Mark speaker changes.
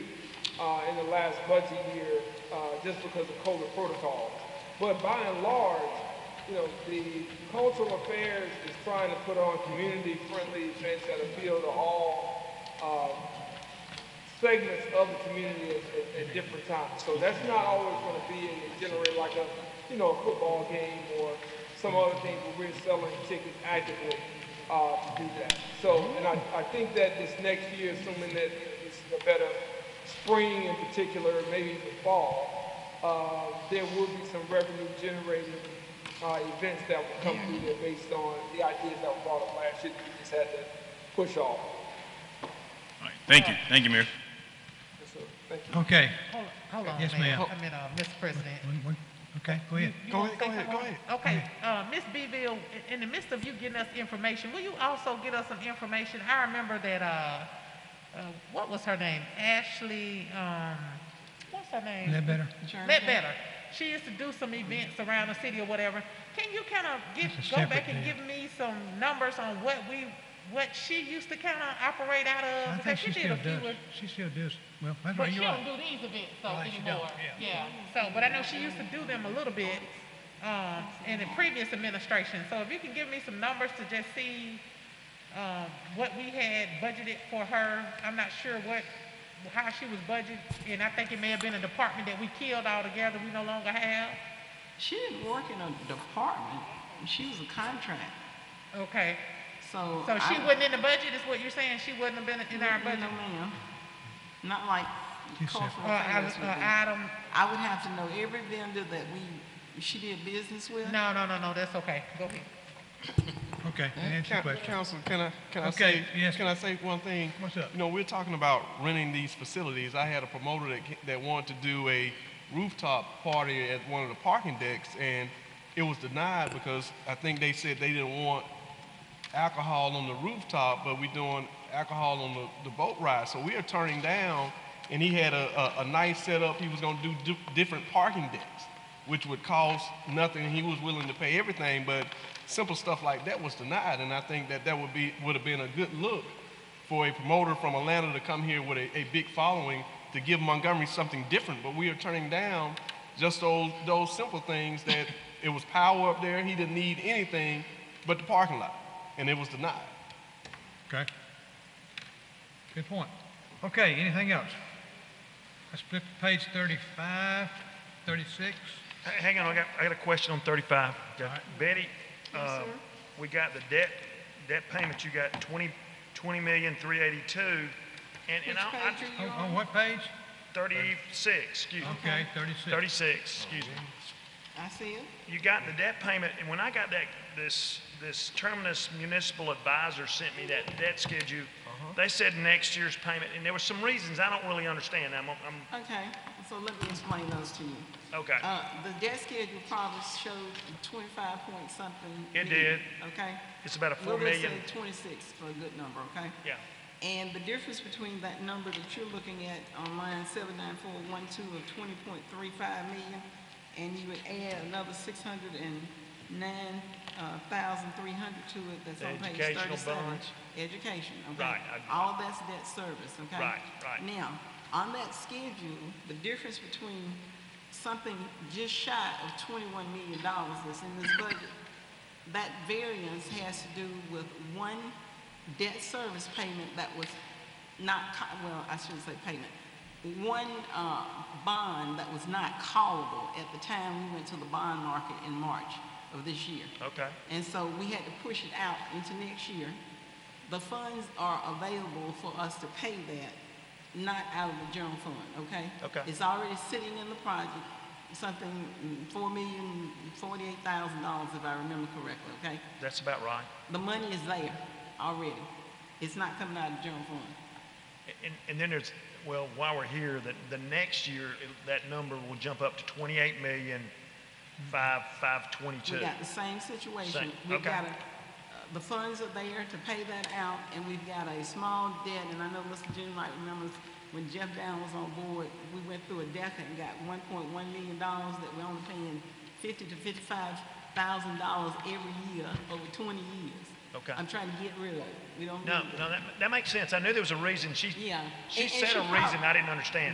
Speaker 1: uh, in the last budget year uh, just because of COVID protocols. But by and large, you know, the cultural affairs is trying to put on community-friendly events that appeal to all uh, segments of the community at, at, at different times. So that's not always going to be in generate like a, you know, a football game or some other thing where we're selling tickets actively uh, to do that. So, and I, I think that this next year, assuming that it's a better spring in particular, maybe even fall, uh, there will be some revenue generating uh, events that will come through there based on the ideas that were brought up last year. that We just had to push off.
Speaker 2: All right. Thank you. Thank you, Mayor.
Speaker 1: Yes, sir. Thank you.
Speaker 3: Okay,
Speaker 4: Hold on, hold on.
Speaker 3: Yes, ma'am.
Speaker 4: A minute, uh, Mr. President.
Speaker 3: We- we- okay, go ahead.
Speaker 4: You wanna say something? Okay, uh, Ms. Beville, i- in the midst of you getting us information, will you also get us some information? I remember that, uh, uh, what was her name? Ashley, um, what's her name?
Speaker 3: Is that better?
Speaker 4: Ledbetter. She used to do some events around the city or whatever. Can you kind of give,
Speaker 3: That's a
Speaker 4: go back
Speaker 3: separate
Speaker 4: and
Speaker 3: deal.
Speaker 4: give me some numbers on what we, what she used to kind of operate out
Speaker 3: I
Speaker 4: of?
Speaker 3: think
Speaker 4: Because
Speaker 3: she
Speaker 4: she
Speaker 3: still
Speaker 4: did a few
Speaker 3: does,
Speaker 4: of
Speaker 3: she still does, well, that's
Speaker 4: But
Speaker 3: right,
Speaker 4: she
Speaker 3: you're
Speaker 4: don't
Speaker 3: right.
Speaker 4: do these events so
Speaker 3: Right, she don't,
Speaker 4: anymore.
Speaker 3: yeah.
Speaker 4: Yeah. So, but I know she used to do them a little bit, um, in the previous administration. So if you can give me some numbers to just see, um, what we had budgeted for her, I'm not sure what, how she was budgeted. And I think it may have been a department that we killed altogether, we no longer have.
Speaker 5: She didn't work in a department. She was a contract.
Speaker 4: Okay.
Speaker 5: So,
Speaker 4: So she
Speaker 5: I-
Speaker 4: wasn't in the budget, is what you're saying? She wouldn't have been in our budget?
Speaker 5: No, ma'am. Not like
Speaker 3: She said-
Speaker 5: cultural
Speaker 4: Or, I-
Speaker 5: affairs would
Speaker 4: or
Speaker 5: be.
Speaker 4: item,
Speaker 5: I would have to know every vendor that we, she did business with.
Speaker 4: no, no, no, no, that's okay. Go ahead.
Speaker 3: Okay, that answers your
Speaker 6: Coun-
Speaker 3: question.
Speaker 6: Council, can I, can I
Speaker 3: Okay,
Speaker 6: say,
Speaker 3: yes.
Speaker 6: can I say one thing?
Speaker 3: What's up?
Speaker 6: You know, we're talking about renting these facilities. I had a promoter that, ca- that wanted to do a rooftop party at one of the parking decks, and it was denied because I think they said they didn't want alcohol on the rooftop, but we're doing alcohol on the, the boat ride. So we are turning down, and he had a, a, a nice setup. He was going to do di- different parking decks, which would cost nothing. He was willing to pay everything, but simple stuff like that was denied. And I think that that would be would have been a good look for a promoter from Atlanta to come here with a, a big following to give Montgomery something different. But we are turning down just those, those simple things that it was power up there. He didn't need anything but the parking lot, and it was denied.
Speaker 3: Okay. Good point. Okay, anything else? Let's flip to page 35, 36.
Speaker 7: H- Hang on, I got, I got a question on 35. Got-
Speaker 3: right.
Speaker 7: Betty, uh, we got the debt, debt payment, you got 20, 20 million, 382, and, and
Speaker 5: Which
Speaker 7: I, I
Speaker 5: page
Speaker 7: just,
Speaker 5: are
Speaker 3: Oh,
Speaker 5: you
Speaker 3: On
Speaker 5: on?
Speaker 3: what page?
Speaker 7: 36, excuse
Speaker 4: Uh-huh.
Speaker 7: me.
Speaker 3: Okay, 36.
Speaker 7: 36, excuse me.
Speaker 5: I see it.
Speaker 7: You got the debt payment, and when I got that, this, this Terminus Municipal Advisor sent me that debt schedule,
Speaker 3: Uh-huh.
Speaker 7: they said next year's payment, and there were some reasons I don't really understand. I'm, I'm,
Speaker 5: Okay, so let me explain those to you.
Speaker 7: okay.
Speaker 5: Uh, the debt schedule probably showed twenty-five point something.
Speaker 7: It
Speaker 5: million,
Speaker 7: did.
Speaker 5: Okay?
Speaker 7: It's about a 4
Speaker 5: We're gonna say
Speaker 7: million,
Speaker 5: twenty-six for a good number, okay?
Speaker 7: yeah.
Speaker 5: And the difference between that number that you're looking at on line seven nine four one two of twenty point three five million, and you would add another six hundred and nine uh, thousand three hundred to it, that's
Speaker 7: The
Speaker 5: on page
Speaker 7: educational
Speaker 5: thirty-seven.
Speaker 7: bonds?
Speaker 5: Education, okay?
Speaker 7: Right, I-
Speaker 5: All that's debt service, okay?
Speaker 7: Right, right.
Speaker 5: Now, on that schedule, the difference between something just shy of twenty-one million dollars that's in this budget, that variance has to do with one debt service payment that was not, ca- well, I shouldn't say payment, one uh, bond that was not callable at the time we went to the bond market in March of this year.
Speaker 7: Okay.
Speaker 5: And so we had to push it out into next year. The funds are available for us to pay that, not out of the general fund, okay?
Speaker 7: Okay.
Speaker 5: It's already sitting in the project, something, mm, four million, forty-eight thousand dollars if I remember correctly, okay?
Speaker 7: That's about right.
Speaker 5: The money is there already. It's not coming out of the general fund.
Speaker 7: And, and then there's, well, while we're here, that the next year, it- that number will jump up to twenty-eight million, five, five
Speaker 5: We
Speaker 7: twenty-two.
Speaker 5: got the same situation.
Speaker 7: Same,
Speaker 5: We've
Speaker 7: okay.
Speaker 5: got, a- uh, the funds are there to pay that out, and we've got a small debt, and I know Mr. Jim might remember when Jeff Down was on board, we went through a deficit and got one point one million dollars that we're only paying fifty to fifty-five thousand dollars every year over twenty years.
Speaker 7: Okay.
Speaker 5: I'm trying to get rid of it. We don't need
Speaker 7: No,
Speaker 5: it.
Speaker 7: no, that, that makes sense. I knew there was a reason. She,
Speaker 5: Yeah.
Speaker 7: she
Speaker 5: And- and
Speaker 7: said
Speaker 5: she
Speaker 7: a reason
Speaker 5: prob-
Speaker 7: I didn't understand.